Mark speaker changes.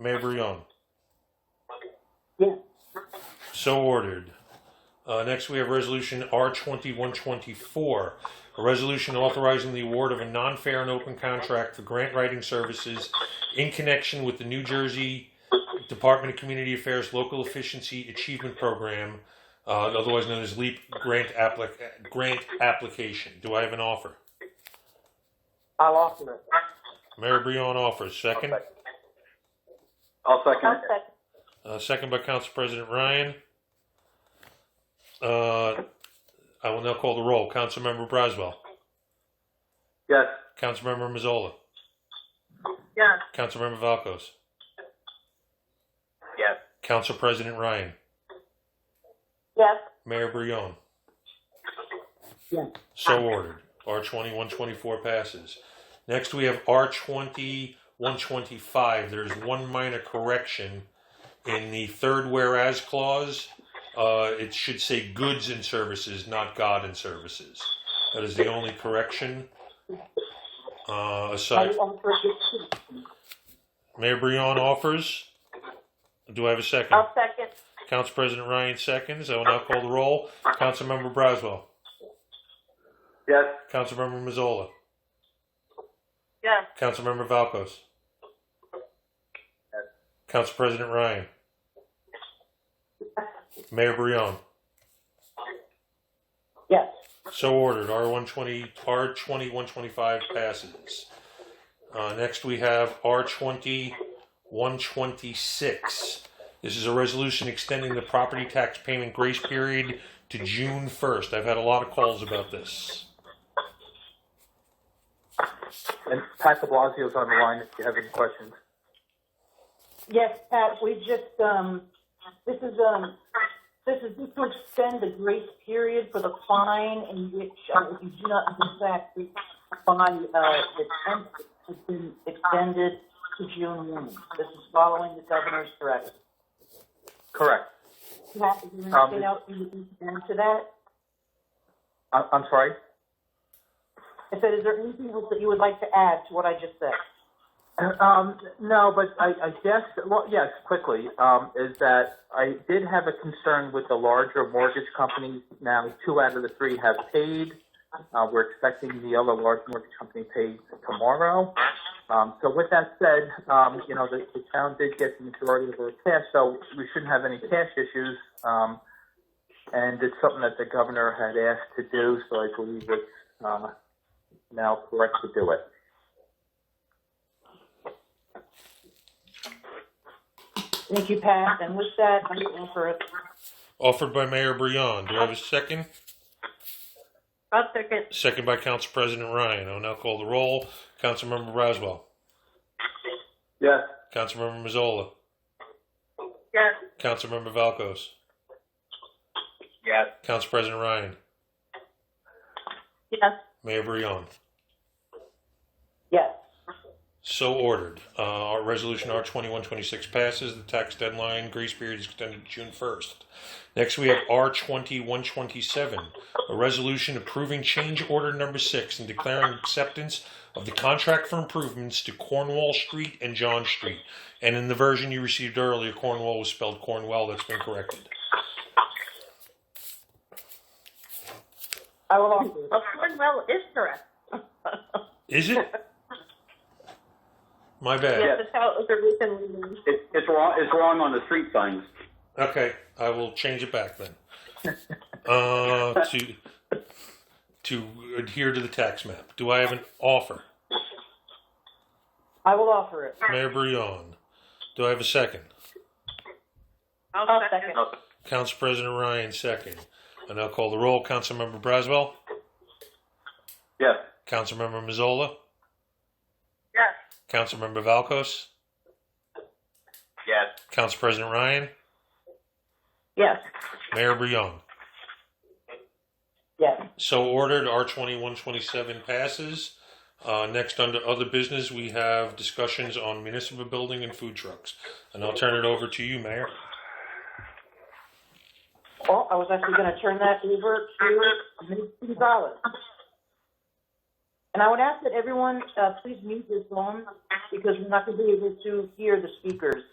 Speaker 1: Mayor Brion.
Speaker 2: Yes.
Speaker 1: So ordered. Uh, next, we have Resolution R twenty-one twenty-four, a resolution authorizing the award of a non-fair and open contract for grant writing services in connection with the New Jersey Department of Community Affairs Local Efficiency Achievement Program, uh, otherwise known as LEAP grant applic- grant application. Do I have an offer?
Speaker 2: I'll offer it.
Speaker 1: Mayor Brion offers. Second,
Speaker 3: I'll second
Speaker 4: I'll
Speaker 3: it.
Speaker 4: second.
Speaker 1: uh, second by Council President Ryan. Uh, I will now call the roll. Councilmember Braswell.
Speaker 3: Yes.
Speaker 1: Councilmember Mazzola.
Speaker 4: Yes.
Speaker 1: Councilmember Valkos.
Speaker 3: Yes.
Speaker 1: Council President Ryan.
Speaker 4: Yes.
Speaker 1: Mayor Brion.
Speaker 2: Yes.
Speaker 1: So ordered. R twenty-one twenty-four passes. Next, we have R twenty-one twenty-five. There's one minor correction in the third whereas clause. Uh, it should say goods and services, not God and services. That is the only correction. Uh, aside,
Speaker 2: I'll offer it too.
Speaker 1: Mayor Brion offers. Do I have a second?
Speaker 2: Uh,
Speaker 4: I'll second.
Speaker 1: Council President Ryan seconds. I will now call the roll. Councilmember Braswell.
Speaker 3: Yes.
Speaker 1: Councilmember Mazzola.
Speaker 4: Yes.
Speaker 1: Councilmember Valkos.
Speaker 3: Yes.
Speaker 1: Council President Ryan. Mayor Brion.
Speaker 2: Yes.
Speaker 1: So ordered. R one twenty, R twenty one twenty five passes. Uh, next we have R twenty one twenty six. This is a resolution extending the property tax payment grace period to June first. I've had a lot of calls about this.
Speaker 3: And Pat de Blasio's on the line if you have any questions.
Speaker 2: Yes, Pat, we just, um, this is, um, this is just to extend the grace period for the fine in which, uh, if you do not in fact, the fine, uh, the tenth has been extended to June one. This is following the governor's directive.
Speaker 3: Correct.
Speaker 2: Pat, is there
Speaker 3: Um,
Speaker 2: anything else you need to add to that?
Speaker 3: I- I'm sorry?
Speaker 2: I said, is there anything else that you would like to add to what I just said?
Speaker 3: Um, no, but I, I guess, well, yes, quickly, um, is that I did have a concern with the larger mortgage companies. Now, two out of the three have paid. Uh, we're expecting the other large mortgage company paid tomorrow. Um, so with that said, um, you know, the, the town did get the majority of their cash, so we shouldn't have any cash issues. Um, and it's something that the governor had asked to do, so I believe it's, uh, now correct to do it.
Speaker 2: Thank you, Pat, and with that, I'm going for it.
Speaker 1: Offered by Mayor Brion. Do I have a second?
Speaker 4: I'll second.
Speaker 1: Second by Council President Ryan. I will now call the roll. Councilmember Braswell.
Speaker 3: Yes.
Speaker 1: Councilmember Mazzola.
Speaker 4: Yes.
Speaker 1: Councilmember Valkos.
Speaker 3: Yes.
Speaker 1: Council President Ryan.
Speaker 4: Yes.
Speaker 1: Mayor Brion.
Speaker 2: Yes.
Speaker 1: So ordered. Uh, our resolution R twenty-one twenty-six passes. The tax deadline grace period is extended to June first. Next, we have R twenty-one twenty-seven, a resolution approving change order number six and declaring acceptance of the contract for improvements to Cornwall Street and John Street. And in the version you received earlier, Cornwall was spelled Cornwell. That's been corrected.
Speaker 2: I will offer it.
Speaker 4: Well, Cornwell is correct.
Speaker 1: Is it? My bad.
Speaker 4: Yes, that's how it was originally. named.
Speaker 5: It, it's wrong. It's wrong on the street signs.
Speaker 1: Okay, I will change it back then. Uh, to to adhere to the tax map. Do I have an offer,
Speaker 2: I will offer it.
Speaker 1: Mayor Brion? Do I have a second?
Speaker 2: I'll second.
Speaker 1: Council President Ryan second. And I'll call the roll. Councilmember Braswell,
Speaker 3: Yes.
Speaker 1: Councilmember Mazzola,
Speaker 4: Yes.
Speaker 1: Councilmember Valkos,
Speaker 3: Yes.
Speaker 1: Council President Ryan,
Speaker 2: Yes,
Speaker 1: Mayor Brion.
Speaker 2: yes.
Speaker 1: So ordered, R twenty-one twenty-seven passes. Uh, next, under other business, we have discussions on municipal building and food trucks. And I'll turn it over to you, Mayor.
Speaker 2: Oh, I was actually going to turn that over to Ms. Gonzalez. And I would ask that everyone, uh, please mute your phone because we're not going to be able to hear the speakers.